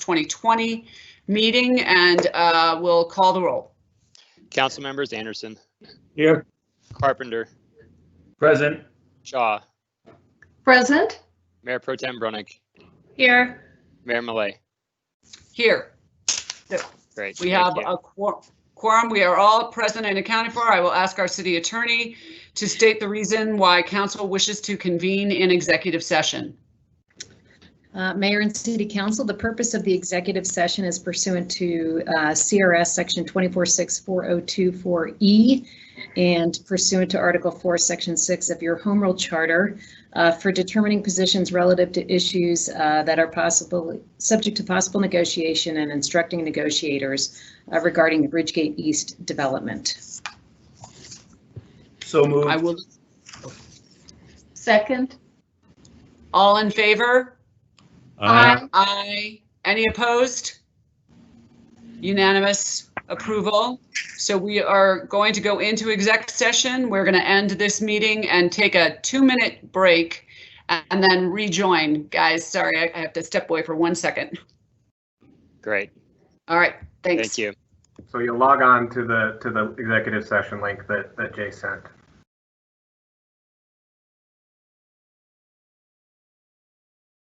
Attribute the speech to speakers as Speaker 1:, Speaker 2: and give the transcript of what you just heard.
Speaker 1: 2020 meeting and uh, we'll call the roll.
Speaker 2: Council members Anderson,
Speaker 3: Here,
Speaker 2: Carpenter,
Speaker 3: present.
Speaker 2: Shaw,
Speaker 4: Present?
Speaker 2: Mayor Pro Tem Brunick,
Speaker 4: Here.
Speaker 2: Mayor Malay.
Speaker 1: Here,
Speaker 2: Great.
Speaker 1: we
Speaker 2: thank
Speaker 1: have
Speaker 2: you.
Speaker 1: a quor- quorum. We are all present and accounted for. I will ask our city attorney to state the reason why council wishes to convene in executive session.
Speaker 5: Uh, Mayor and City Council, the purpose of the executive session is pursuant to uh, CRS Section 2464024E E and pursuant to Article 4, Section 6 of your Home Rule Charter uh, for determining positions relative to issues uh, that are possible, subject to possible negotiation and instructing negotiators uh, regarding the Bridgegate East development.
Speaker 3: So
Speaker 1: I
Speaker 3: moved.
Speaker 1: will,
Speaker 4: Second?
Speaker 1: all in favor?
Speaker 4: Aye.
Speaker 1: Aye. Any opposed? Unanimous approval. So we are going to go into exec session. We're going to end this meeting and take a two-minute break and then rejoin. Guys, sorry, I- I have to step away for one second.
Speaker 2: Great.
Speaker 1: All right, thanks.
Speaker 2: Thank you.
Speaker 6: So you log on to the, to the executive session link that, that Jay sent.